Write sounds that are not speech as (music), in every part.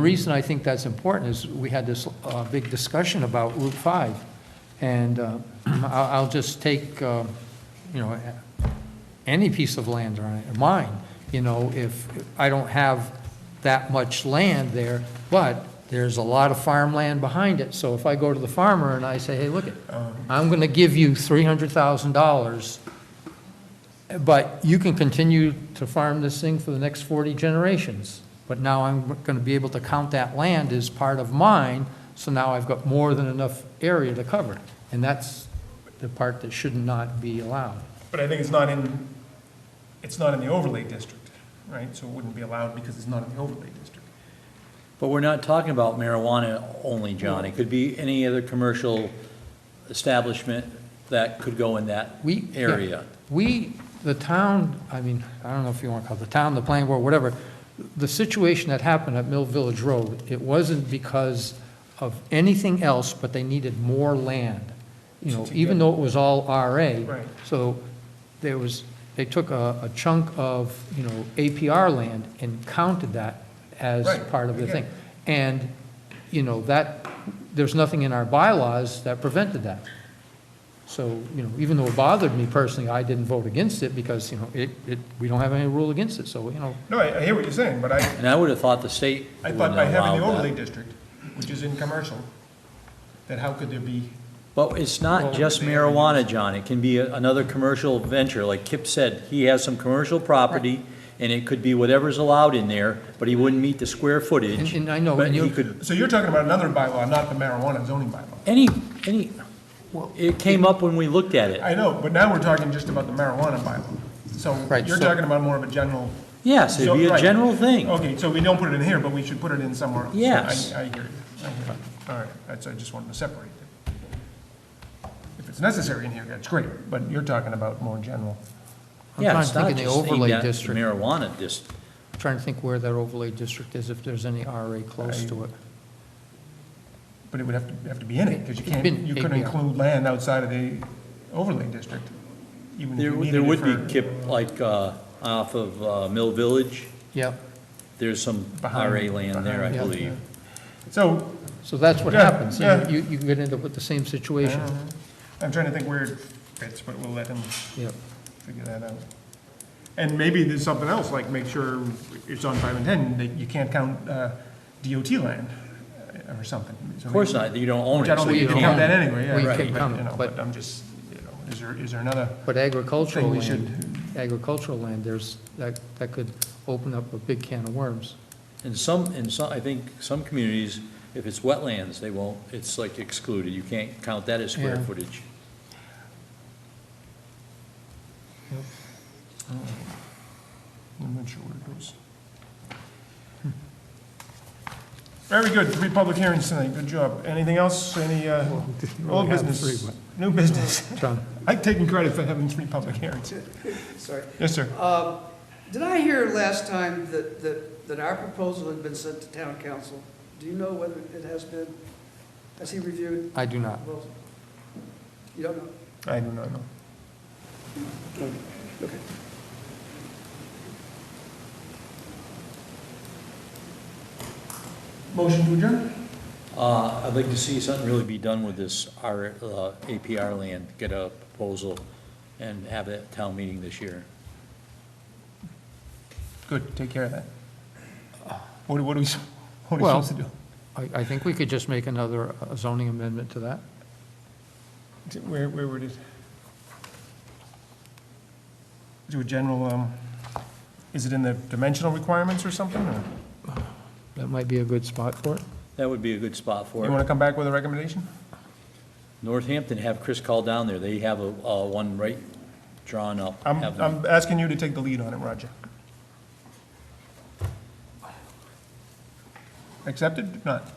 The reason I think that's important is we had this uh, big discussion about Route 5, and uh, (clears throat) I'll I'll just take, uh, you know, any piece of land or mine, you know, if I don't have that much land there, but there's a lot of farmland behind it, so if I go to the farmer and I say, hey, look, it, I'm going to give you $300,000 but you can continue to farm this thing for the next 40 generations. But now I'm going to be able to count that land as part of mine, so now I've got more than enough area to cover. And that's the part that should not be allowed. But I think it's not in, it's not in the overlay district, right? So it wouldn't be allowed because it's not in the overlay district. But we're not talking about marijuana only, John. It could be any other commercial establishment that could go in that We- yeah. area. We, the town, I mean, I don't know if you want to call it the town, the planning board, whatever, the situation that happened at Mill Village Road, it wasn't because of anything else, but they needed more land. You know, even though it was all RA. Right. So there was, they took a a chunk of, you know, APR land and counted that as Right, part of the yeah. thing. And, you know, that, there's nothing in our bylaws that prevented that. So, you know, even though it bothered me personally, I didn't vote against it because, you know, it, it, we don't have any rule against it, so, you know, No, I, I hear what you're saying, but I, And I would have thought the state I would thought by having the allow overlay that. district, which is in commercial, that how could there be, But it's Well, not just they have to marijuana, John. It can be a- another commercial venture. Like Kip said, he has some commercial property, and it could be whatever's allowed in there, but he wouldn't meet the square footage. And- and I know, But and he you- could, so you're talking about another bylaw, not the marijuana zoning bylaw. any, any, it came up when we looked at it. I know, but now we're talking just about the marijuana bylaw. So Right, you're so- talking about more of a general. Yes, it'd be so- a right. general thing. Okay, so we don't put it in here, but we should put it in somewhere else. Yes. I, I hear you. I hear you. All right, that's, I just wanted to separate it. If it's necessary in here, that's great, but you're talking about more general. I'm Yeah, trying it's to think not of the just aimed overlay at the district. Marijuana district. trying to think where that overlay district is, if there's any RA close to it. But it would have to, have to be in it, because you It's can't, been you couldn't APR. include land outside of the overlay district. even if There, you would- needed there it would be, for- Kip, like, uh, off of, uh, Mill Village, Yeah, there's some Behind- RA land there, I behind, yeah. believe. So, so that's what Yeah, happens, you know, yeah. you, you could end up with the same situation. I'm trying to think where it fits, but we'll let him Yeah, figure that out. And maybe there's something else, like make sure it's on five and ten, that you can't count, uh, DOT land uh, or something. Of course not, you don't own Which I it, don't so think you you can don't count own that it. anyway, yeah. Well, you right, can't but, count it, know, but- But I'm just, you know, is there, is there another? But agricultural Thing we land, agricultural land, there's, that, that could open up a big can of worms. In some, in some, I think some communities, if it's wetlands, they won't, it's like excluded, you can't count that as square Yeah. footage. I'm not sure where it goes. Hmm. Very good, three public hearings tonight, good job. Anything else, any, uh, old business, new business? (laughs) John, I'm taking credit for having three public hearings. Sorry. Yes, sir. Um, Did I hear last time that, that, that our proposal had been sent to town council? Do you know whether it has been? Has he reviewed I do the not. proposal? You don't know? I do not know. Okay. Motion to adjourn? Uh, I'd like to see something really be done with this R, uh, APR land, get a proposal and have that town meeting this year. Good, take care of that. Ah. What, do- what are we, s- what are we Well- supposed to do? I, I think we could just make another uh, zoning amendment to that. Where, where would it? Do a general, um, is it in the dimensional requirements or something, or That might be a good spot for it. That would be a good spot for you it. wanna come back with a recommendation? Northampton, have Chris call down there, they have a, uh, one right drawn up. I'm, Have them- I'm asking you to take the lead on it, Roger. Accepted, not?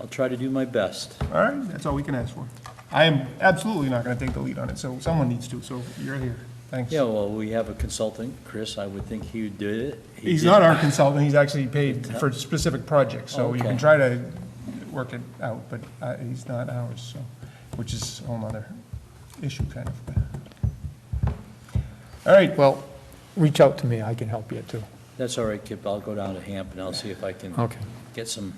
I'll try to do my best. All right, that's all we can ask for. I am absolutely not gonna take the lead on it, so someone needs to, so you're here. Thanks. Yeah, well, we have a consultant, Chris, I would think he would do it. He He's did- not our consultant, he's actually paid for specific projects, so you can Okay. try to work it out, but uh, he's not ours, so, which is a whole nother issue kind of. All right, Well, reach out to me, I can help you too. That's all right, Kip, I'll go down to Hamp and I'll see if I can Okay. get some